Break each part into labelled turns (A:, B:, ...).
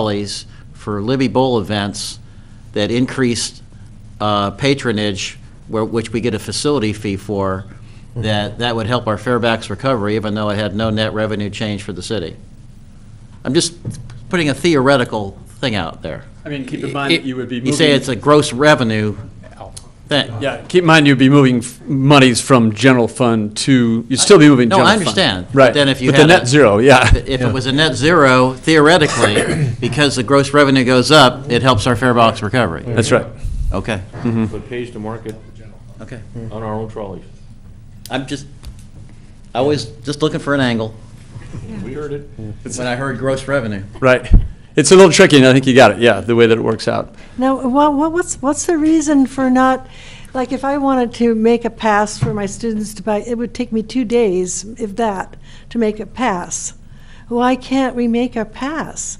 A: trolleys for Libby Bowl events that increased uh, patronage, where- which we get a facility fee for,
B: Mm-hmm.
A: that, that would help our Fairfax recovery, even though it had no net revenue change for the city. I'm just putting a theoretical thing out there.
B: I mean, keep in mind that you would be moving.
A: You say it's a gross revenue thing.
B: Yeah, keep in mind you'd be moving f- monies from general fund to, you'd still be moving
A: No,
B: general
A: I
B: fund.
A: understand. But
B: Right.
A: then if you
B: But the
A: had a-
B: net zero, yeah.
A: If it was a net zero, theoretically, because the gross revenue goes up, it helps our Fairfax recovery.
B: That's right. Mm-hmm.
A: Okay,
C: But pays to market
A: okay.
C: on our own trolleys.
A: I'm just, I was just looking for an angle
C: We heard it.
A: when I heard gross revenue.
B: Right. It's a little tricky, and I think you got it, yeah, the way that it works out.
D: Now, what, what's, what's the reason for not, like, if I wanted to make a pass for my students to buy, it would take me two days, if that, to make a pass. Why can't we make a pass?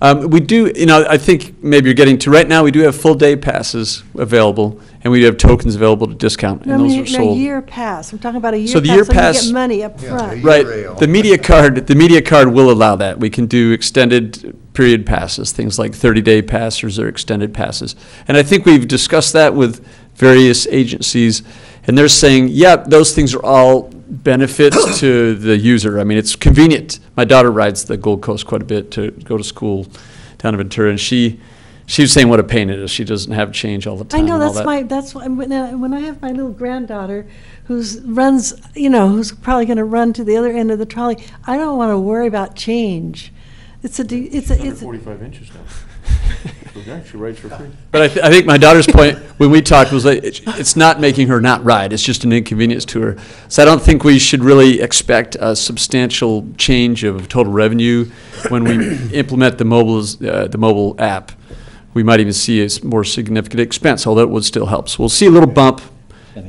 B: Um, we do, you know, I think maybe you're getting to, right now, we do have full-day passes available, and we do have tokens available to discount,
D: I
B: and those
D: mean,
B: are sold.
D: A year pass, I'm talking about a year pass.
B: So the year
D: So
B: pass-
D: you get money up
E: Yeah,
D: front.
E: the year-
B: Right. The media card, the media card will allow that. We can do extended period passes, things like 30-day passes or extended passes. And I think we've discussed that with various agencies, and they're saying, yeah, those things are all benefits to the user. I mean, it's convenient. My daughter rides the Gold Coast quite a bit to go to school down in Ventura, and she, she was saying what a pain it is. She doesn't have change all the time
D: I know,
B: and all
D: that's
B: that.
D: my, that's why, when I, when I have my little granddaughter who's runs, you know, who's probably gonna run to the other end of the trolley, I don't wanna worry about change. It's a, de- it's a,
C: Under
D: it's a.
C: forty-five inches now. Okay, She rides for free.
B: But I, th- I think my daughter's point when we talked was that it, it's not making her not ride. It's just an inconvenience to her. So I don't think we should really expect a substantial change of total revenue when we implement the mobile uh, the mobile app. We might even see a s- more significant expense, although it would still help. So we'll see a little bump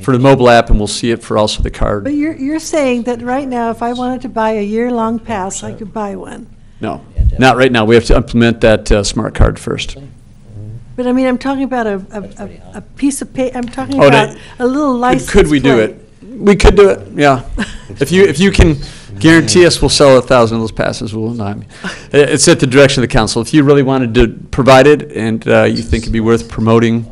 B: for the mobile app, and we'll see it for also the card.
D: But you're, you're saying that right now, if I wanted to buy a year-long pass, I could buy one.
B: No, not right now. We have to implement that uh, smart card first.
D: But I mean, I'm talking about a, a- a, a piece of pa, I'm talking
B: Oh,
D: about
B: that-
D: a little license
B: Could we do
D: plate.
B: it? We could do it, yeah. If you, if you can guarantee us we'll sell a thousand of those passes, we'll, no, I mean, i- it's at the direction of the council. If you really wanted to provide it and uh, you think it'd be worth promoting,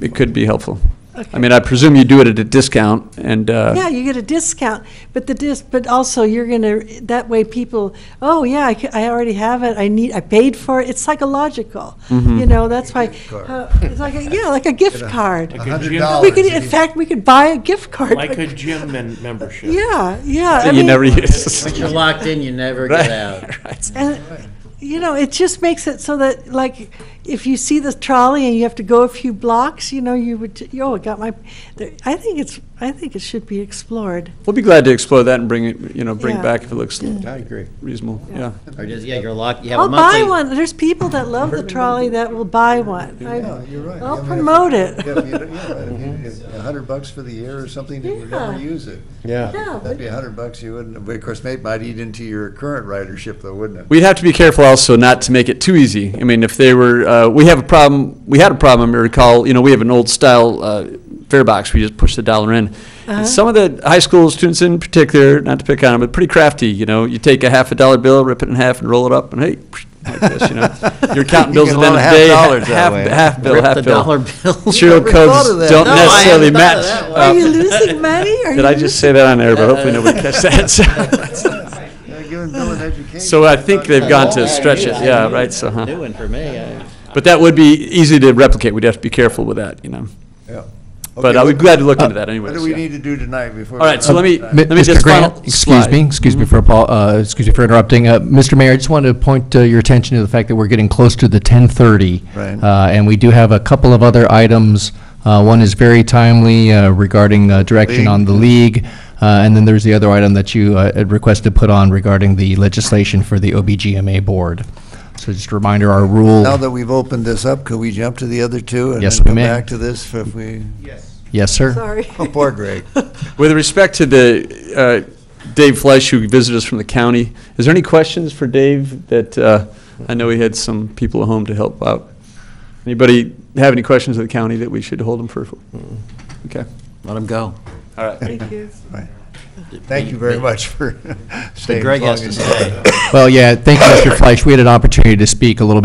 B: it could be helpful. I
D: Okay.
B: mean, I presume you do it at a discount and,
D: Yeah,
B: uh,
D: you get a discount, but the dis, but also you're gonna, that way people, oh, yeah, I, ca- I already have it, I need, I paid for it, it's psychological.
B: Mm-hmm.
D: You know, that's why,
E: card.
D: uh, it's like, a- yeah, like a gift card.
E: A hundred
D: We
E: dollars.
D: could, in fact, we could buy a gift card.
C: Like a gym mem- membership.
D: Yeah, yeah. I
B: that you
D: mean-
B: never use.
A: Once you're locked in, you never get out.
D: And, you know, it just makes it so that, like, if you see the trolley and you have to go a few blocks, you know, you would, t- yo, I got my, there- I think it's, I think it should be explored.
B: We'll be glad to explore that and bring it, you know, bring it
D: Yeah.
B: back if it looks
E: I agree.
B: reasonable, yeah.
A: Or just, yeah, you're locked, you have a
D: I'll
A: monthly.
D: buy one. There's people that love the trolley that will buy one.
E: Yeah,
D: I-
E: you're right.
D: I'll
E: I mean, if-
D: promote it.
E: Yeah, if you- yeah, if you- if A hundred bucks for the year or something, you would never
D: Yeah.
E: use it.
D: Yeah,
E: That'd be a hundred bucks you wouldn't, but of course, that might eat into your current ridership though, wouldn't it?
B: We'd have to be careful also not to make it too easy. I mean, if they were, uh, we have a problem, we had a problem, I recall, you know, we have an old style, uh, fare box, we just push the dollar in. And some of the high school students in particular, not to pick on them, but pretty crafty, you know, you take a half a dollar bill, rip it in half and roll it up and hey, like this, you know. You're counting
F: You
B: bills at
F: get a
B: the end
F: lot
B: of
F: of
B: the day,
F: half dollars that
B: half,
F: way.
B: half bill,
A: Rip
B: half
A: the
B: bill.
A: dollar bill.
B: Serial
E: never thought of
B: codes
E: that.
B: don't
E: No, I
A: hadn't
B: necessarily
A: thought of
B: match.
A: that one.
B: uh,
D: Are you losing money? Are
B: Did
D: you
B: I just
D: losing-
B: say that on air, but hopefully nobody catch that, so.
E: Yeah, Giving Bill an education.
B: So I think they've gone to stretch it,
A: Oh, Yeah.
B: yeah, right, so, huh.
A: New one for me. I-
B: But that would be easy to replicate. We'd have to be careful with that, you know.
E: Yeah.
B: But
E: Okay,
B: I would
E: what- uh,
B: be glad to look into that
E: What
B: anyways.
E: do we
B: yeah.
E: need to do tonight before?
B: All right, so
E: we-
B: let me-
E: Uh,
F: Mi-
B: Let me just
F: Mr. Grant,
B: final-
F: excuse me,
B: slide.
F: excuse me for, apo- uh, excuse me for interrupting. Uh, Mr. Mayor, I just wanted to point uh, your attention to the fact that we're getting close to the 10:30.
E: Right.
F: Uh, And we do have a couple of other items. Uh, One is very timely uh, regarding uh, direction
E: League.
F: on the league. Uh, And then there's the other item that you uh, had requested put on regarding the legislation for the OBGMA board. So just a reminder, our rule.
E: Now that we've opened this up, could we jump to the other two?
F: Yes,
E: And
F: we
E: then
F: may.
E: come back to this if we,
F: Yes, sir?
D: Sorry.
E: oh, poor Greg.
B: With respect to the, uh, Dave Fleisch, who visited us from the county, is there any questions for Dave that, uh, I know he had some people at home to help out? Anybody have any questions of the county that we should hold them for? Okay,
A: Let him go.
B: all right.
D: Thank you.
E: Thank you very much for staying as
A: Greg
E: long
A: has
E: as
A: to
E: you
A: stay.
E: did.
F: Well, yeah, thank you, Mr. Fleisch. We had an opportunity to speak a little bit.